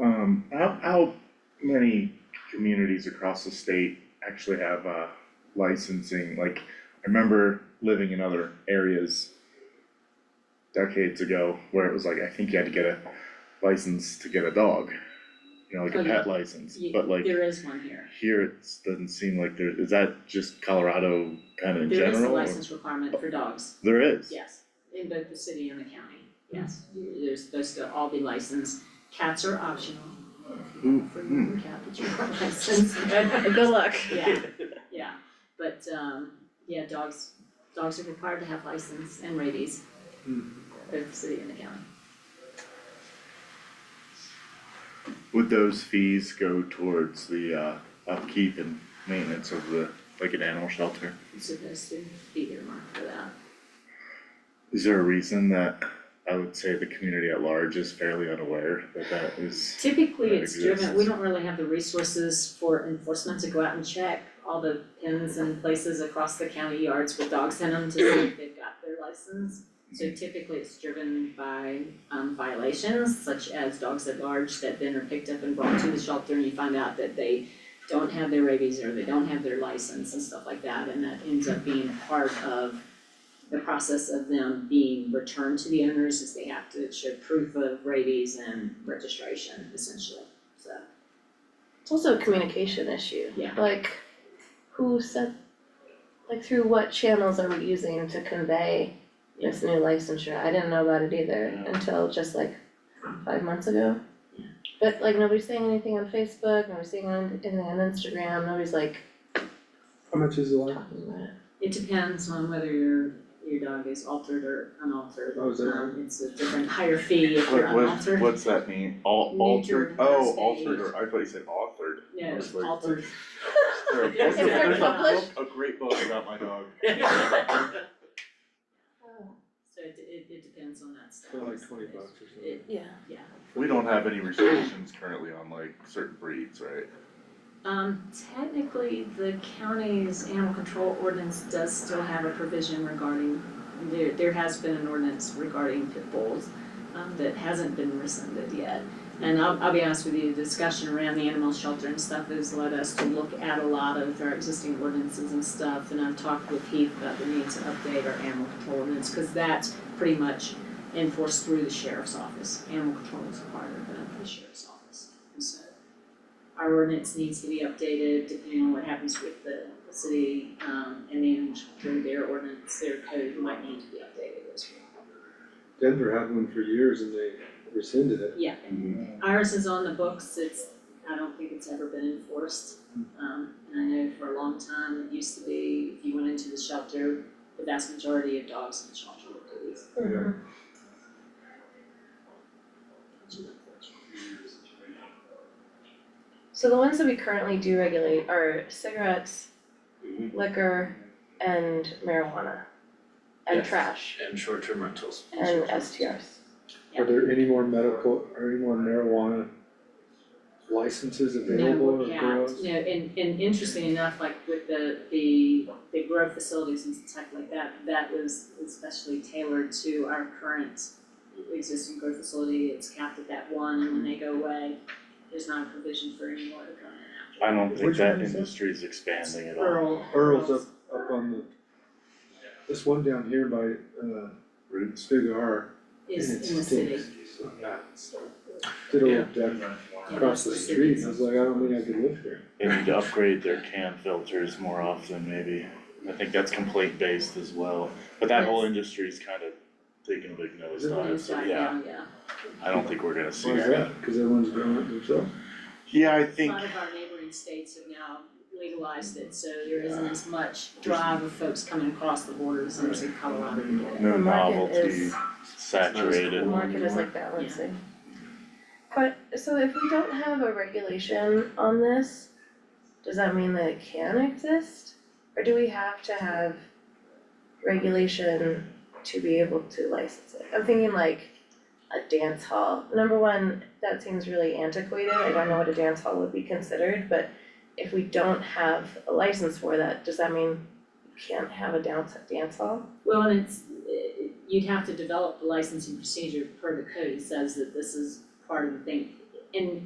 Um, communities across the state actually have uh licensing, like, I remember living in other areas decades ago where it was like, I think you had to get a license to get a dog, you know, like Oh, a yeah. pet license, Ye- but like There is one here. here it doesn't seem like there, is that just Colorado kind of in There is a general? Oh. or- license requirement for dogs, There is? yes, in both the city and the county, Hmm. yes. They're supposed to all be licensed. Cats are optional. Ooh, Remember cat that you are licensed. Good luck. Yeah, yeah, but um, yeah, dogs, dogs are required to have license and rabies. Hmm. Both the city and the county. Would those fees go towards the uh upkeep and maintenance of the, like an animal shelter? It's supposed to be earmarked for that. Is there a reason that I would say the community at large is fairly unaware that that is, Typically, That it's driven, we exists. don't really have the resources for enforcement to go out and check all the pins and places across the county yards with dogs in them to see if they've got their license. So typically, it's driven by um violations such as dogs at large that then are picked up and brought to the shelter and you find out that they don't have their rabies or they don't have their license and stuff like that, and that ends up being part of the process of them being returned to the owners is they have to show proof of rabies and registration essentially, so. It's also a communication issue. Yeah. Like, who said, like, through what channels are we using to convey this new licensure? I didn't know about it either Yeah. until just like five months ago. Yeah. But like, nobody's saying anything on Facebook, nobody's saying on- anything on Instagram, nobody's like How much is the one? talking about it. It depends on whether your, your dog is altered or unaltered. Oh, is that- Um, it's a different higher fee if you're What what unaltered. what's that mean? Al- Neuter altered, oh, first altered, aid. or I thought you said authored. No, it's Or like- altered. There- Is There's a, there there's a published? book, a great book about my dog. So it, it, it depends on that stuff. For like twenty bucks or something. It- Yeah. yeah, We don't have any restrictions currently on like certain breeds, right? um, technically, the county's animal control ordinance does still have a provision regarding, there, there has been an ordinance regarding pit bulls. um, that hasn't been rescinded yet. And I'll, I'll be honest with you, the discussion around the animal shelter and stuff has led us to look at a lot of our existing ordinances and stuff. And I've talked with Heath about the need to update our animal control ordinance, cause that's pretty much enforced through the sheriff's office. Animal control is part of the sheriff's office, and so our ordinance needs to be updated depending on what happens with the, the city, um, and then through their ordinance, their code might need to be updated as well. Denver had one for years and they rescinded it. Yeah, Iris is on the books, it's, I don't think it's ever been enforced. Um, and I know for a long time, it used to be, if you went into the shelter, the vast majority of dogs in the shelter were police. Mm-hmm. Yeah. So the ones that we currently do regulate are cigarettes, liquor, and marijuana. And Yes. trash, and short-term rentals. and STRs. Are there any more medical, or any more marijuana licenses available or No, yeah, grows? no, and, and interesting enough, like with the, the, the grow facilities and stuff like that, that was especially tailored to our current existing grow facility, it's capped at that one, and when they go away, there's not a provision for any more to come in after. I don't think Which that one is it? industry is expanding at all. Earl. Earl's up, up on the, this one down here by, uh, Roots. Big R. and Is it in the city. stinks. Did old Denver Yeah, across the that's the street, city. I was like, I don't think I could live here. They need to upgrade their can filters more often maybe. I think that's complaint based as well, but that whole industry's kind of taking a big nose dive, so Died yeah, down, yeah. I don't think we're gonna see Why that. is that? Cause everyone's doing it themselves. Yeah, I A think, lot of our neighboring states have now legalized it, so there isn't as much drive of folks coming across the borders into Colorado. to do it. no The market novelty, is, the saturated. market is like balancing. But, so if we don't have a regulation on this, does that mean that it can exist? Or do we have to have regulation to be able to license it? I'm thinking like a dance hall. Number one, that seems really antiquated, I don't know what a dance hall would be considered, but if we don't have a license for that, does that mean we can't have a dance, dance hall? Well, and it's, eh, you'd have to develop the licensing procedure per the code, it says that this is part of the thing. And